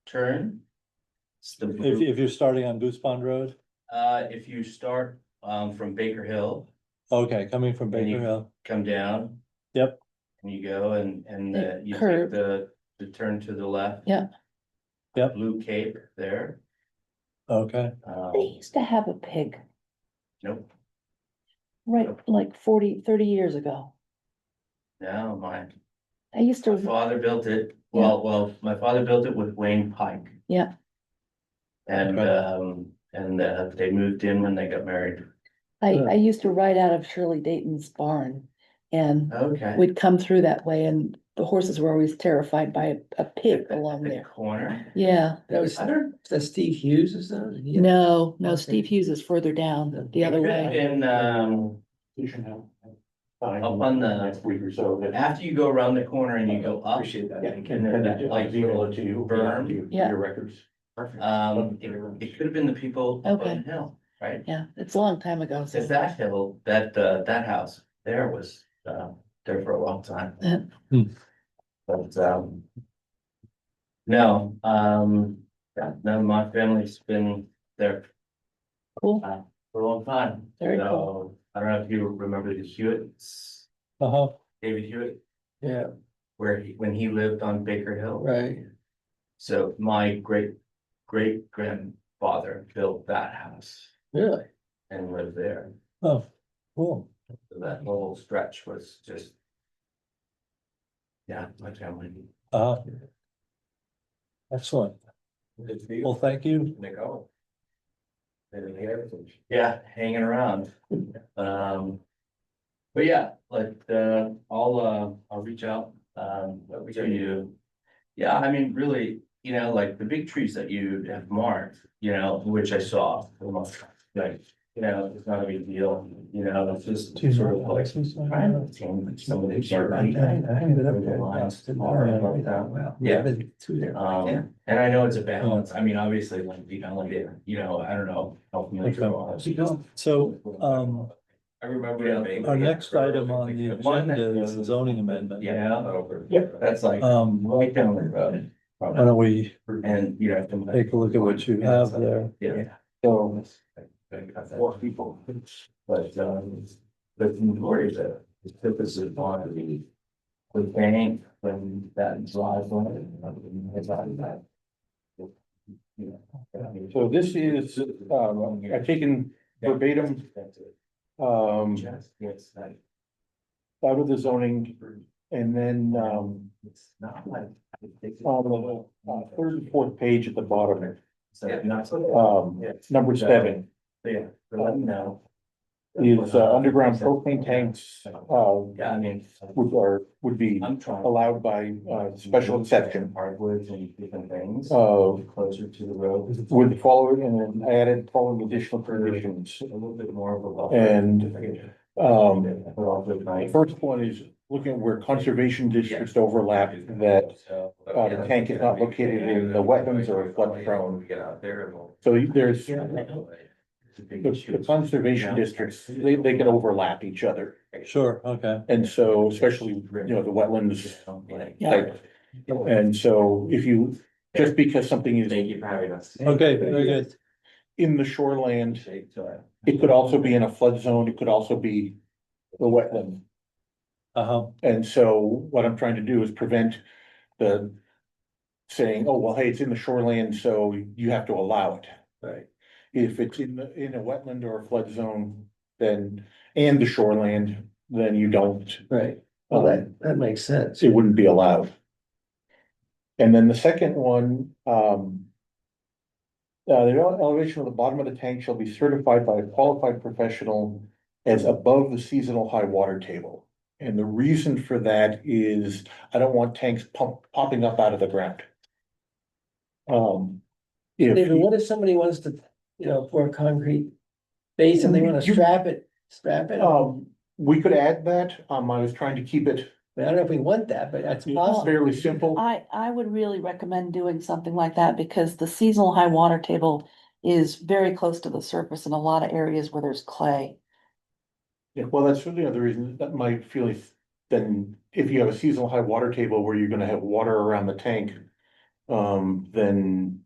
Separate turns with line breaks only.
turn. It's the
If,
blue-
if you're starting on Goose Pond Road,
Uh, if you start, um, from Baker Hill,
okay, coming from
Then you-
Baker Hill,
come down.
Yep.
And you go and, and
The
uh, you take
curve.
the, the turn to the left.
Yeah.
Yep.
Blue Cape there,
okay,
um,
They used to have a pig,
nope,
right, like 40, 30 years ago.
no, mine.
I used
My
to,
father built it, well, well, my father built it with Wayne Pike.
Yeah.
And,
Okay.
um, and uh, they moved in when they got married.
I,
Yeah.
I used to ride out of Shirley Dayton's barn. And
Okay.
we'd come through that way and the horses were always terrified by a- a pig along
The
there.
Corner.
Yeah,
That was,
I don't-
that Steve Hughes is that? He-
no, no,
Okay.
Steve Hughes is further down the other
Could have
way.
Been, um, Up on the- next
Week or so.
after you go around the corner and you go up,
that.
Yeah. And then that, like,
Zero to you.
berm.
to
Yeah.
Your records.
um, it, it could have been the people up on the hill, right?
Yeah, it's a long time ago. so-
Cause that hill, that, uh, that house there was, uh, there for a long time.
Yeah.
Hmm.
But, um. No, um, yeah, no, my family's been there uh,
Cool.
for a long time.
Very
So, I don't know if you remember the Hewitts,
uh-huh,
David Hewitt,
Yeah,
where he, when he lived on Baker Hill.
right.
So my great, great grandfather built that house
Really?
and lived there.
oh, cool.
So That whole stretch was just. Yeah, my family.
Uh, excellent.
It's
Well, thank you.
Nicole. Yeah, hanging around. Um. But yeah, like, uh, I'll, uh, I'll reach out, um, to you. Yeah, I mean, really, you know, like the big trees that you have marked, you know, which I saw for the most part, like, you know, it's not a big deal, you know, it's just sort of like. trying to change some of the Yeah. Um, and I know it's a balance, I mean, obviously, like, you know, like, you know, I don't know. help me like,
Okay.
all that.
uh, So, um,
I remember.
our next item on the
One that-
agenda is the zoning amendment.
Yeah, that's like
Um,
right down the road.
why don't we
And, you know. to-
take a look at what you have there?
Yeah. So. Four people. But, um, but the majority of it, the purpose of on the. The bank, when that drives on it, and it's on that. You know.
So this is, um, I've taken verbatim,
That's it.
um,
Just, it's like,
out of the zoning and then, um,
it's not like.
Um,
on the uh, third and fourth page at the bottom,
So, not
Uh,
so.
um, number seven.
Yeah, let me know.
Is uh, underground propane tanks, uh,
Yeah, I mean.
would are, would be
I'm trying.
allowed by uh special exception.
Hardwoods and different things.
Uh,
Closer to the road.
with the following and then added following additional conditions.
A little bit more of a. buffer.
And, Um,
But also at
the
night.
first one is looking where conservation districts overlap that,
So-
uh, the tank is not located in the wetlands or flood prone.
We Get out there and we'll.
so there's the
It's a big issue.
the conservation districts, they they can overlap each other.
Sure, okay,
And so especially, you know, the wetlands.
Like-
Yeah. And so if you, just because something is
Thank you for having us.
okay, very good.
in the shoreland,
Shake, so I-
it could also be in a flood zone, it could also be the wetland.
Uh-huh,
And so what I'm trying to do is prevent the saying, oh, well, hey, it's in the shoreline, so you have to allow it. Right. If it's in the, in a wetland or a flood zone, then, and the shoreland, then you don't,
Right, well,
um,
that, that makes sense.
it wouldn't be allowed. And then the second one, um. Uh, the ele- elevation of the bottom of the tank shall be certified by a qualified professional as above the seasonal high water table. And the reason for that is I don't want tanks pump, popping up out of the ground. Um. If,
David, what if somebody wants to, you know, pour concrete base and they wanna
You-
strap it, strap it? I
um, we could add that, um, I was trying to keep it
mean, I don't know if we want that, but that's possible.
fairly simple.
I, I would really recommend doing something like that because the seasonal high water table is very close to the surface in a lot of areas where there's clay.
Yeah, well, that's really another reason that my feeling, is then if you have a seasonal high water table where you're gonna have water around the tank. Um, then